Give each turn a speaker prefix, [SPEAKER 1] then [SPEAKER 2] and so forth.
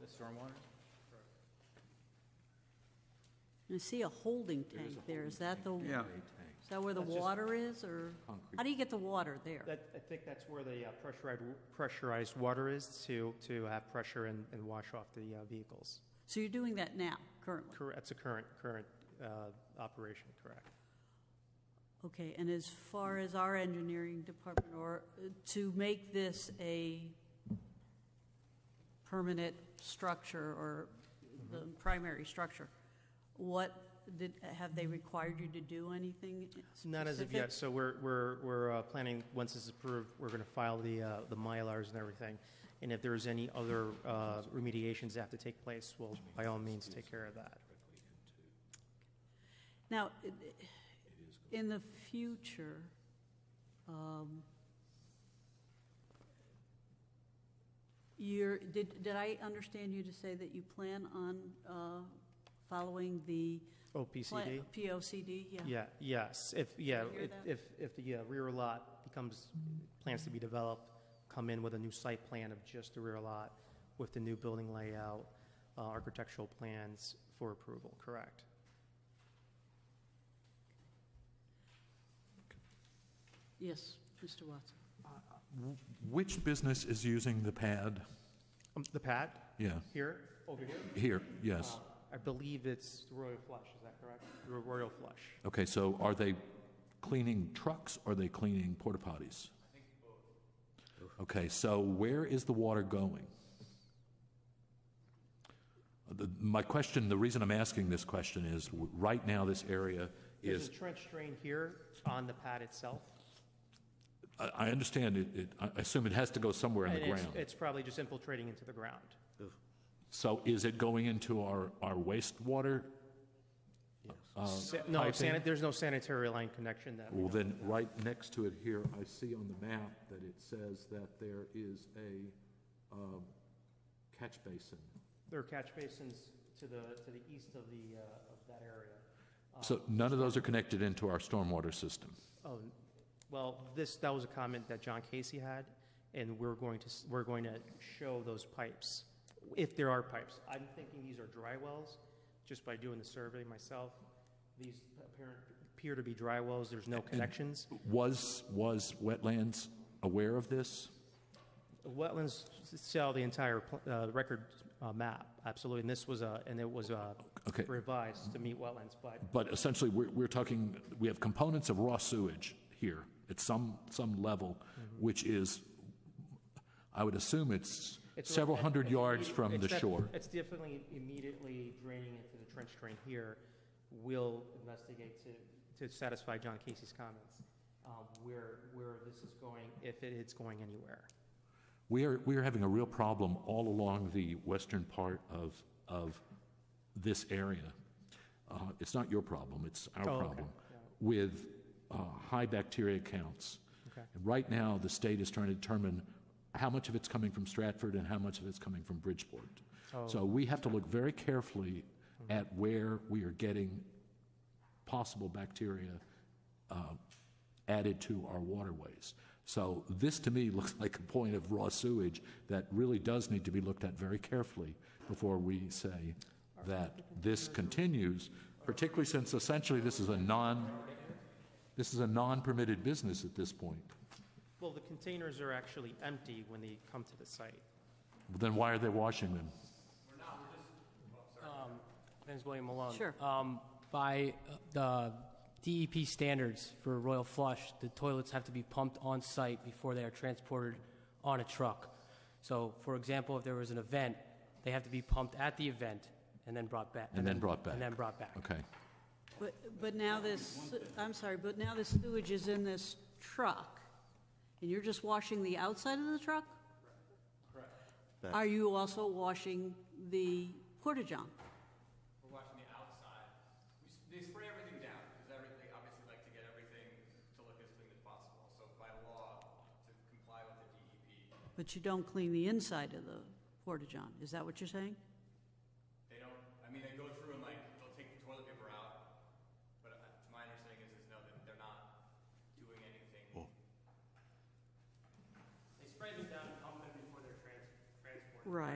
[SPEAKER 1] the stormwater?
[SPEAKER 2] I see a holding tank there, is that the,
[SPEAKER 3] Yeah.
[SPEAKER 2] is that where the
[SPEAKER 1] That's just-
[SPEAKER 2] water is, or, how do you get the water there?
[SPEAKER 4] That, I think that's where the uh, pressurized, pressurized water is to, to have pressure and, and wash off the uh, vehicles.
[SPEAKER 2] So you're doing that now, currently?
[SPEAKER 4] Correct, that's a current, current uh, operation, correct.
[SPEAKER 2] Okay, and as far as our engineering department, or uh, to make this a permanent structure or the primary structure, what, did, have they required you to do anything specific?
[SPEAKER 4] Not as of yet, so we're, we're, we're uh, planning, once this is approved, we're going to file the, uh, the Mylars and everything. And if there's any other uh, remediations that have to take place, we'll by all means take care of that.
[SPEAKER 2] Now, i- in the future, um, you're, did, did I understand you to say that you plan on uh, following the? pla-
[SPEAKER 4] OPCD?
[SPEAKER 2] POCD, yeah.
[SPEAKER 4] Yeah, yes, if, yeah,
[SPEAKER 2] Did you hear
[SPEAKER 4] if-
[SPEAKER 2] that?
[SPEAKER 4] if, if the uh, rear lot becomes, plans to be developed, come in with a new site plan of just the rear lot with the new building layout, uh, architectural plans for approval, correct?
[SPEAKER 2] Yes, Mr. Watson.
[SPEAKER 3] Which business is using the pad?
[SPEAKER 4] Um, The pad
[SPEAKER 3] Yeah,
[SPEAKER 4] here, over here?
[SPEAKER 3] here, yes.
[SPEAKER 4] Uh, I believe it's Royal Flush, is that correct? Ro- Royal Flush.
[SPEAKER 3] Okay, so are they cleaning trucks, or are they cleaning porta potties? Okay, so where is the water going? Uh, The- My question, the reason I'm asking this question is, w- right now, this area
[SPEAKER 4] There's
[SPEAKER 3] is,
[SPEAKER 4] a trench drain here on the pad itself.
[SPEAKER 3] I I understand, it- it, I assume it has to go somewhere in the
[SPEAKER 4] And it's-
[SPEAKER 3] ground.
[SPEAKER 4] It's probably just infiltrating into the ground.
[SPEAKER 3] So is it going into our our wastewater? uh,
[SPEAKER 4] Sa- No,
[SPEAKER 3] piping?
[SPEAKER 4] sanit, there's no sanitary line connection that we
[SPEAKER 3] Well,
[SPEAKER 4] know
[SPEAKER 3] then, right next to it here, I see on the map that it says that there is a um, catch basin.
[SPEAKER 4] There are catch basins to the, to the east of the, uh, of that area.
[SPEAKER 3] So none of those are connected into our stormwater system.
[SPEAKER 4] Oh, well, this, that was a comment that John Casey had, and we're going to, s- we're going to show those pipes, if there are pipes. I'm thinking these are dry wells, just by doing the survey myself. These apparent, appear to be dry wells, there's no connections.
[SPEAKER 3] Was, was wetlands aware of this?
[SPEAKER 4] Wetlands s- sell the entire pl- uh, record uh, map, absolutely, and this was, a- and it was uh,
[SPEAKER 3] Okay.
[SPEAKER 4] revised to meet wetlands, but
[SPEAKER 3] But essentially, we're, we're talking, we have components of raw sewage here at some, some level,
[SPEAKER 4] Mm-hmm.
[SPEAKER 3] which is, I would assume it's
[SPEAKER 4] It's a-
[SPEAKER 3] several hundred
[SPEAKER 4] it's
[SPEAKER 3] yards
[SPEAKER 4] immedi-
[SPEAKER 3] from
[SPEAKER 4] it's
[SPEAKER 3] the
[SPEAKER 4] def-
[SPEAKER 3] shore.
[SPEAKER 4] It's definitely immediately draining into the trench drain here. We'll investigate to, to satisfy John Casey's comments, um, where, where this is going, if it is going anywhere.
[SPEAKER 3] We are, we are having a real problem all along the western part of, of this area. Uh, It's not your problem, it's our
[SPEAKER 4] Oh, okay.
[SPEAKER 3] problem, with uh, high bacteria counts.
[SPEAKER 4] Okay.
[SPEAKER 3] And Right now, the state is trying to determine how much of it's coming from Stratford and how much of it's coming from Bridgeport. So we have to look very carefully at where we are getting possible bacteria uh, added to our waterways. So this, to me, looks like a point of raw sewage that really does need to be looked at very carefully before we say that this continues, particularly since essentially this is a non, this is a non-permitted business at this point.
[SPEAKER 4] Well, the containers are actually empty when they come to the site.
[SPEAKER 3] Then why are they washing them?
[SPEAKER 5] My name's William Malone.
[SPEAKER 2] Sure.
[SPEAKER 5] Um, By uh, the DEP standards for Royal Flush, the toilets have to be pumped on-site before they are transported on a truck. So, for example, if there was an event, they have to be pumped at the event and then brought back.
[SPEAKER 3] And then brought back.
[SPEAKER 5] And then brought back.
[SPEAKER 3] Okay.
[SPEAKER 2] But, but now this, I'm sorry, but now this sewage is in this truck, and you're just washing the outside of the truck? Correct. Are you also washing the porta-john?
[SPEAKER 6] We're watching the outside. We, s- they spray everything down because every, they obviously like to get everything to look as clean as possible. So by law, to comply with the E DEP,
[SPEAKER 2] But you don't clean the inside of the porta-john, is that what you're saying?
[SPEAKER 6] they don't. I mean, they go through and like they'll take the toilet paper out, but uh, my understanding is is no, that they're not doing anything.
[SPEAKER 5] They spray them down and pump them before they're transported.
[SPEAKER 2] Right.